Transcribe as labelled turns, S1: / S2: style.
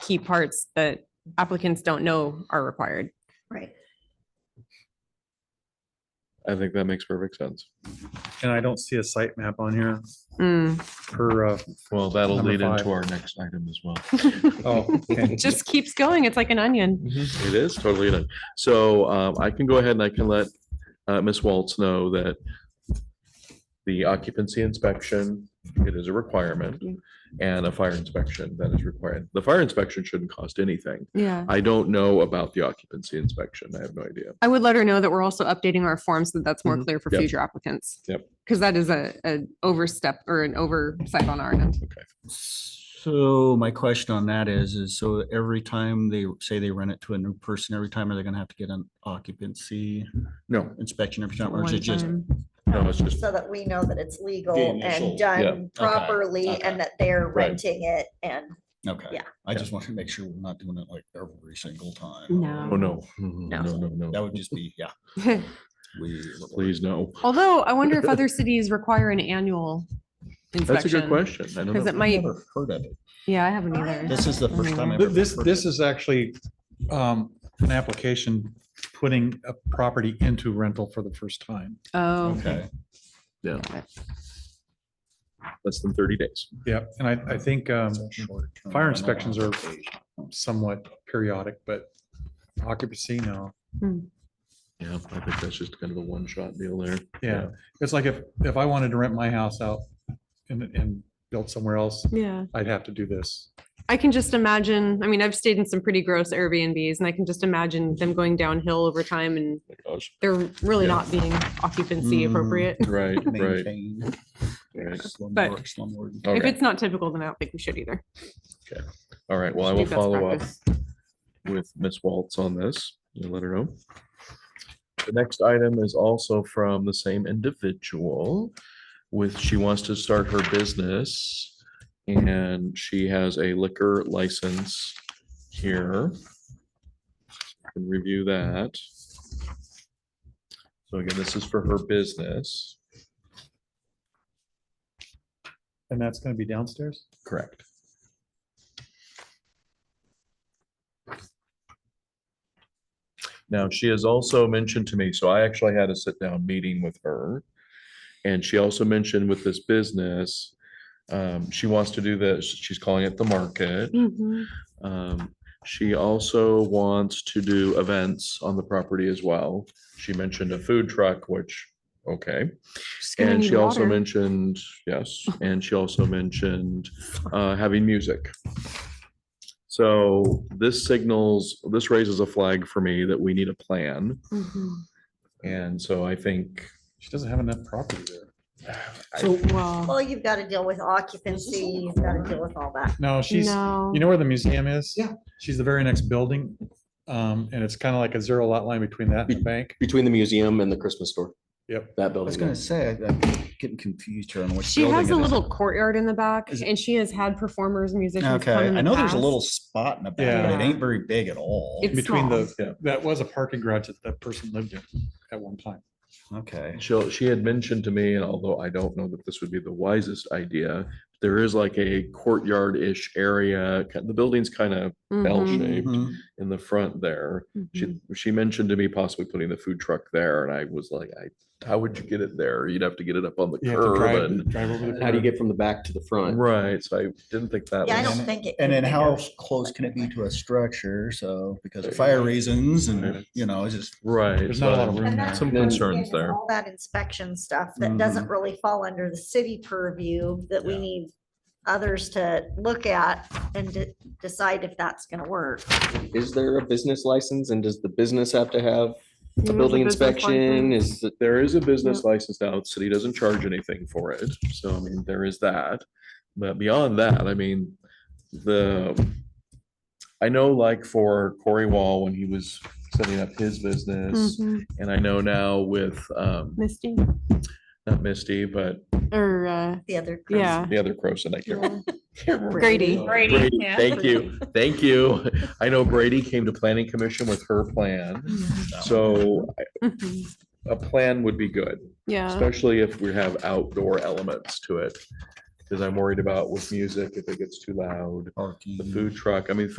S1: key parts that applicants don't know are required.
S2: Right.
S3: I think that makes perfect sense.
S4: And I don't see a site map on here
S1: Mm,
S4: per, uh,
S3: Well, that'll
S4: Number
S3: lead
S4: five.
S3: into our next item as well.
S4: oh, okay.
S1: It just keeps going. It's like an onion.
S3: Mm-hmm. It is totally done. So um, I can go ahead and I can let uh, Ms. Waltz know that the occupancy inspection, it is a requirement, and a fire inspection that is required. The fire inspection shouldn't cost anything.
S1: Yeah.
S3: I don't know about the occupancy inspection. I have no idea.
S1: I would let her know that we're also updating our form so that that's more
S3: Mhm.
S1: clear for
S3: Yep.
S1: future applicants.
S3: Yep.
S1: Because that is a, an overstep or an oversight on our end.
S5: So my question on that is, is so every time they say they rent it to a new person, every time are they gonna have to get an occupancy
S3: No,
S5: inspection every time? Or is it
S1: One
S5: just,
S1: time.
S3: no, it's just,
S2: Um, So that we know that it's legal
S5: The
S2: and
S5: initial,
S3: yeah,
S2: done properly
S5: okay.
S2: and that they're
S3: Right.
S2: renting it and
S5: okay.
S2: Yeah.
S5: I just want to make sure we're not doing it like every single time.
S1: No.
S3: oh, no, no, no,
S5: That
S3: no.
S5: would just be, yeah. we-
S3: Please, no.
S1: Although I wonder if other cities require an annual
S3: That's a good
S1: inspection.
S3: question. I don't
S1: Because
S3: know.
S1: it might,
S5: Never Heard of it.
S1: yeah, I haven't either.
S5: This is the first time. I've
S4: Th-
S5: ever
S4: This,
S5: heard of
S4: this
S5: it.
S4: is actually um, an application putting a property into rental for the first time.
S1: Oh.
S5: Okay,
S3: Yeah. Less than thirty days.
S4: Yep, and I, I think um,
S5: short-term
S4: fire
S5: rental
S4: inspections are
S5: application.
S4: somewhat periodic, but occupancy, no.
S3: Yeah, I think that's just kind of a one-shot deal there.
S4: Yeah, it's like if, if I wanted to rent my house out and, and build somewhere else,
S1: Yeah.
S4: I'd have to do this.
S1: I can just imagine, I mean, I've stayed in some pretty gross Airbnbs and I can just imagine them going downhill over time and
S3: My gosh.
S1: they're really
S3: Yeah.
S1: not being occupancy
S5: Mm.
S1: appropriate.
S3: Right, right.
S5: Maintain.
S3: Right.
S5: Slumlord, slumlord.
S4: Oh,
S3: All
S1: If
S3: right,
S1: it's not typical, then I don't think we should either.
S3: all right. Well, I
S1: Should be
S3: will
S1: best
S3: follow up
S1: practice.
S3: with Ms. Waltz on this. You let her know. The next item is also from the same individual with, she wants to start her business. And she has a liquor license here. Can review that. So again, this is for her business.
S4: And that's going to be downstairs?
S3: Correct. Now, she has also mentioned to me, so I actually had a sit down meeting with her. And she also mentioned with this business, um, she wants to do this, she's calling it the market.
S1: Mhm.
S3: Um, she also wants to do events on the property as well. She mentioned a food truck, which, okay.
S1: Just gonna
S3: And
S1: need
S3: she also
S1: water.
S3: mentioned, yes, and she also mentioned uh, having music. So this signals, this raises a flag for me that we need a plan.
S1: Mhm.
S3: And so I think.
S4: She doesn't have enough property there.
S1: Well,
S2: well, you've got to deal with occupancy, you've got to deal with all that.
S4: No, she's,
S1: no.
S4: you know where the museum is?
S6: Yeah.
S4: She's the very next building. Um, and it's kind of like a zero lot line between that and the bank.
S6: Between the museum and the Christmas store.
S4: Yep.
S6: That
S5: I was
S6: building.
S5: gonna
S6: there.
S5: say, I- I'm getting confused here on which.
S1: She
S5: building
S1: has a
S5: it is.
S1: little courtyard in the back
S5: Is it-
S1: and she has had performers, musicians
S5: Okay,
S1: come in
S5: I
S1: the
S5: know there's
S1: past.
S5: a little spot in the back, but it
S1: Yeah.
S5: ain't very big at all.
S1: It's
S4: Between
S1: small.
S4: the, that was a parking garage that that person lived in at one time.
S5: Okay.
S3: She'll, she had mentioned to me, and although I don't know that this would be the wisest idea, there is like a courtyard-ish area. ki- The building's kind of
S1: Mhm.
S3: L-shaped
S5: Mhm.
S3: in the front there.
S1: Mhm.
S3: She, she mentioned to me possibly putting the food truck there and I was like, I, how would you get it there? You'd have to get it up on the
S4: You have to
S3: curb
S4: drive,
S3: and.
S4: drive over the.
S6: How do
S4: curb.
S6: you get from the back to the front?
S3: Right, so I didn't think that
S2: Yeah, I
S3: was,
S2: don't think it.
S5: And
S2: could
S5: then
S2: be
S5: how
S2: negotiated.
S5: close can it be to a structure? So because
S3: There
S5: of
S3: you
S5: fire
S3: go.
S5: reasons
S3: Yeah.
S5: and, you know, it's just,
S3: right.
S4: There's not a lot
S3: so
S4: of room
S2: And
S4: there.
S2: that's
S3: Some
S2: the thing
S3: concerns
S2: is
S3: there.
S2: All that inspection stuff that
S3: Mm-hmm.
S2: doesn't really fall under the city purview that we
S5: Yeah.
S2: need others to look at and de- decide if that's going to work.
S6: Is there a business license and does the business have to have
S1: There's
S6: a
S1: a
S6: building
S1: business
S6: inspection?
S1: license.
S6: Is, it-
S3: There is a business license now, the city doesn't charge anything for it, so I mean, there is that. But beyond that, I mean, the, I know like for Corey Wall, when he was setting up his business,
S1: Mhm.
S2: Mm-hmm.
S3: and I know now with, um,
S1: Misty
S3: not Misty, but
S1: or, uh,
S2: The other. group.
S1: yeah.
S3: the other Croson, I can't
S1: yeah. Grady.
S3: Brady, Thank you, thank you. I know Brady came to planning commission with her plan, so
S1: Mhm.
S3: a plan would be good,
S1: Yeah.
S3: especially if we have outdoor elements to it. Because I'm worried about with music, if it gets too loud,
S5: parking.
S3: the food truck, I mean,